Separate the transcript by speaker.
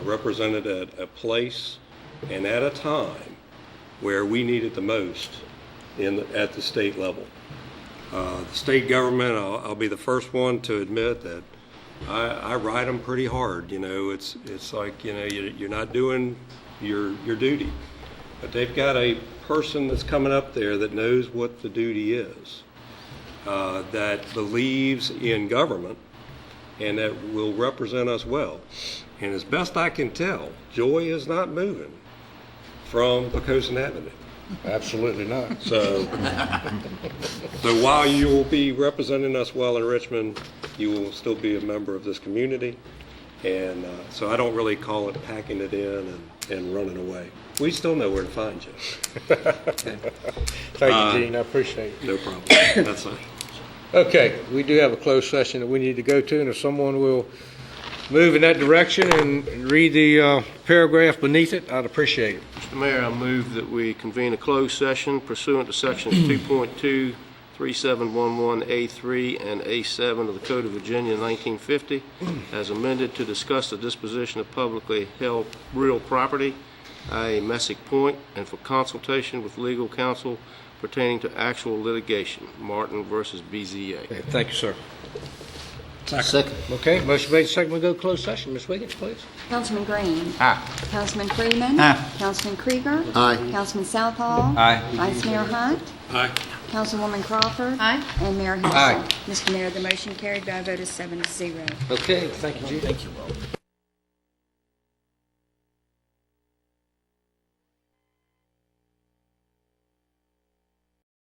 Speaker 1: represented at a place and at a time where we need it the most in, at the state level. Uh, The state government, I'll, I'll be the first one to admit that I, I ride them pretty hard, you know, it's, it's like, you know, you- you're not doing your, your duty. But they've got a person that's coming up there that knows what the duty is, uh, that believes in government, and that will represent us well. And as best I can tell, Joy is not moving from Pocosin Avenue.
Speaker 2: Absolutely not.
Speaker 1: So, so while you will be representing us well in Richmond, you will still be a member of this community. And uh, so I don't really call it packing it in and, and running away. We still know where to find you.
Speaker 2: Thank you, Gene, I appreciate it.
Speaker 1: No problem. That's it.
Speaker 2: Okay, we do have a closed session that we need to go to, and if someone will move in that direction and read the uh, paragraph beneath it, I'd appreciate it.
Speaker 3: Mr. Mayor, I move that we convene a closed session pursuant to Sections 2.2, 3711A3, and A7 of the Code of Virginia 1950, as amended to discuss the disposition of publicly held real property, i.e. Messick Point, and for consultation with legal counsel pertaining to actual litigation, Martin versus BZA.
Speaker 2: Okay, Thank you, sir.
Speaker 4: Second.
Speaker 2: Okay, motion made, second, we go to closed session. Ms. Wiggins, please.
Speaker 5: Councilman Green. Aye. Councilman Freeman.
Speaker 4: Aye.
Speaker 5: Councilman Krieger.
Speaker 4: Aye.
Speaker 5: Councilman Southall.
Speaker 4: Aye.
Speaker 5: Vice Mayor Hunt.
Speaker 1: Aye.
Speaker 5: Councilwoman Crawford.
Speaker 6: Aye.
Speaker 5: And Mayor Hensel.
Speaker 2: Aye.
Speaker 5: Mr. Mayor, the motion carried by a vote of seven to zero.
Speaker 2: Okay, thank you, Gene.